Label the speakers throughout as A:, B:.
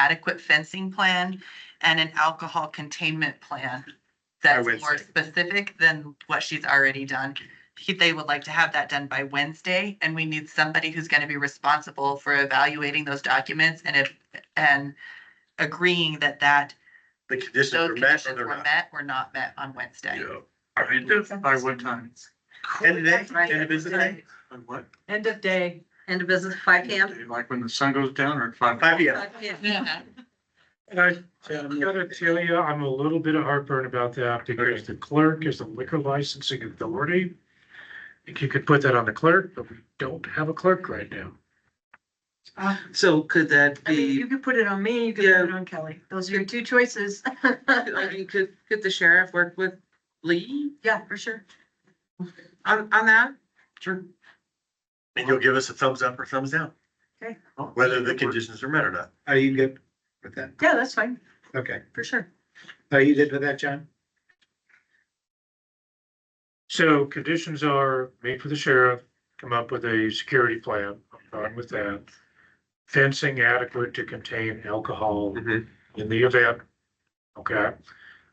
A: adequate fencing plan and an alcohol containment plan that's
B: By
A: more
B: Wednesday.
A: specific than what she's already done. He- They would like to have that done by Wednesday, and we need somebody who's gonna be responsible for evaluating those documents and if, and agreeing that that,
B: The conditions
A: those
B: were met or
A: conditions
B: they're
A: were
B: not.
A: met or not met on Wednesday.
C: I mean, that- by what time?
B: End of
D: That's
B: day,
D: right.
B: end of business day,
C: By what?
D: End of day, end of business, five P M.
C: Like when the sun goes down or at five?
B: five P M.
D: Five P M.
A: Yeah.
E: And I, I gotta tell you, I'm a little bit of heartburn about that because the clerk is the liquor licensing authority. I think you could put that on the clerk, but we don't have a clerk right now.
F: So could that
D: I mean,
F: be,
D: you could put it on me, you could put it on Kelly. Those are your two choices.
F: I mean, could, could the sheriff work with Lee
D: Yeah, for sure.
F: on, on that?
C: Sure.
B: And you'll give us a thumbs up or thumbs down, whether the conditions are met or not.
G: Are you good with that?
D: Yeah, that's fine,
G: Okay.
D: for sure.
G: Are you good with that, John?
E: So conditions are meet with the sheriff, come up with a security plan, I'm fine with that. Fencing adequate to contain alcohol
B: Mhm.
E: in the event. Okay,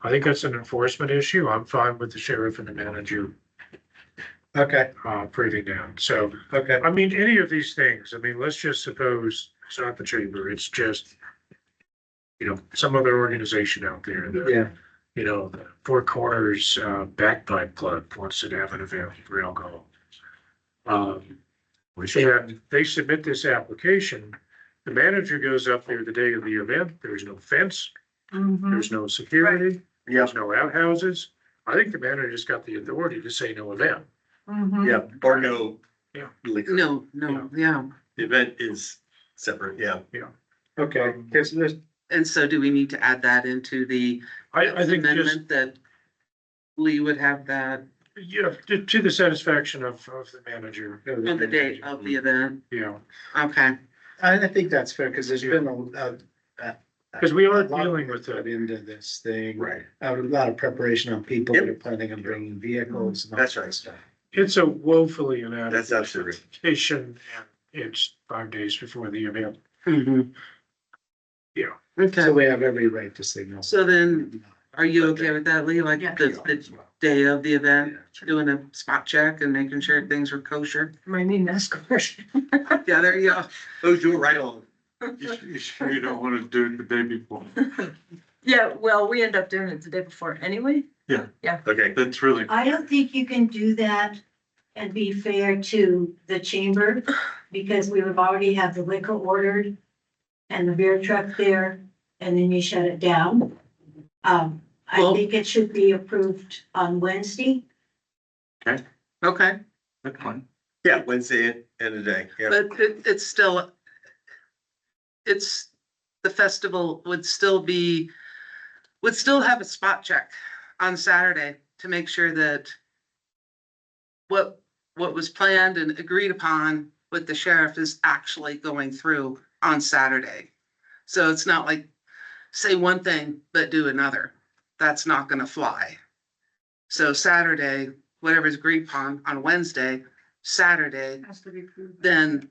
E: I think that's an enforcement issue. I'm fine with the sheriff and the manager
G: Okay,
E: uh breathing down. So
G: okay.
E: I mean, any of these things, I mean, let's just suppose it's not the chamber, it's just. You know, some other organization out there that
G: Yeah.
E: you know, the Four Corners uh, Backpipe Club wants to have an event for alcohol. Um, and they submit this application, the manager goes up there the day of the event, there's no fence,
D: Mm-hmm,
E: there's no security,
B: Yeah,
E: there's no outhouses. I think the manager's got the authority to say no event.
D: mm-hmm.
B: yeah, or no.
E: Yeah.
B: Liquor.
F: No, no, yeah.
B: The event is separate, yeah.
G: Okay, cause this,
F: And so do we need to add that into the
E: I, I think just,
F: amendment that Lee would have that
E: yeah, to, to the satisfaction of, of the manager.
F: on the date uh. of the event?
E: Yeah,
F: Okay,
G: I, I think that's fair, cause there's been a, a.
E: because we are
G: a lot
E: dealing with
G: put
E: that.
G: Into this thing,
B: Right.
G: a lot of preparation on people that
B: Yep.
G: are planning on bringing vehicles and all
B: That's
G: that
B: right.
G: stuff.
E: It's a woefully inadequate.
B: That's absolutely. right.
E: presentation, and it's five days before the event.
F: mhm.
E: Mm-hmm. Yeah.
G: So
F: Okay,
G: we have every right to signal.
F: so then, are you okay with that, Lee? Like
D: Yeah.
F: the, the day of the event, doing a spot check and making sure things were kosher?
D: My name is question.
F: Yeah, there you go.
B: Those do it right on.
C: You s- you sure you don't wanna do it the day before?
D: Yeah, well, we end up doing it the day before anyway.
B: Okay,
C: That's really.
H: I don't think you can do that and be fair to the chamber, because we have already have the liquor ordered and the beer truck there, and then you shut it down. Um, I
F: Well-
H: think it should be approved on Wednesday.
F: Okay.
C: That's fine.
B: yeah, Wednesday and a day, yeah.
F: But it, it's still, it's, the festival would still be, would still have a spot check on Saturday to make sure that what, what was planned and agreed upon with the sheriff is actually going through on Saturday. So it's not like, say one thing, but do another. That's not gonna fly. So Saturday, whatever's agreed upon on Wednesday, Saturday,
D: Has to be approved.
F: then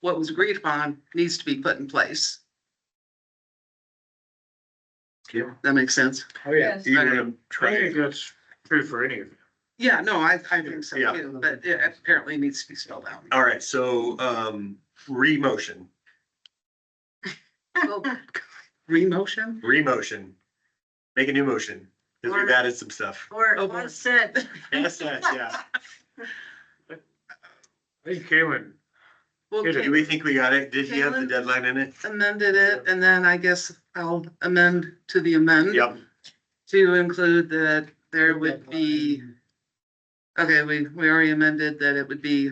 F: what was agreed upon needs to be put in place.
G: Yeah.
F: That makes sense?
G: Oh, yeah.
D: Yes.
B: Even if I'm
E: I
B: trying-
E: think that's true for any of it.
F: Yeah, no, I, I think so
B: Yeah.
F: too, but it apparently needs to be spelled out.
B: All right, so, um, re-motion, Oh.
F: Remotion?
B: re-motion, make a new motion, because we've added some stuff.
D: Or
F: Oh,
D: it
F: boy.
D: was said.
B: Yes, yes, yeah.
E: I think Kalen,
F: Well,
E: Here it
B: Do we think we got it? Did he have the
F: Caitlin?
B: deadline in it?
F: amended it, and then I guess I'll amend to the amend
B: Yep,
F: to include that there would be, okay, we, we already amended that it would be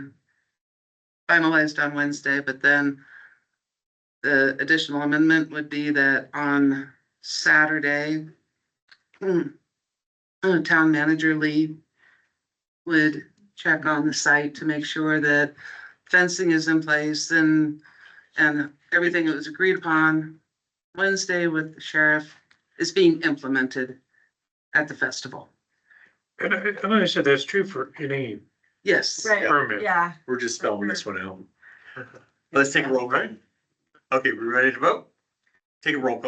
F: finalized on Wednesday, but then the additional amendment would be that on Saturday, hmm, uh, Town Manager Lee would check on the site to make sure that fencing is in place and, and everything that was agreed upon Wednesday with the sheriff is being implemented at the festival.
E: and I, and I said that's true for any
F: Yes.
D: Right,
E: permit.
D: yeah.
B: we're just spelling this one out. Let's take a roll, right? Okay, we ready to vote? Take a roll call.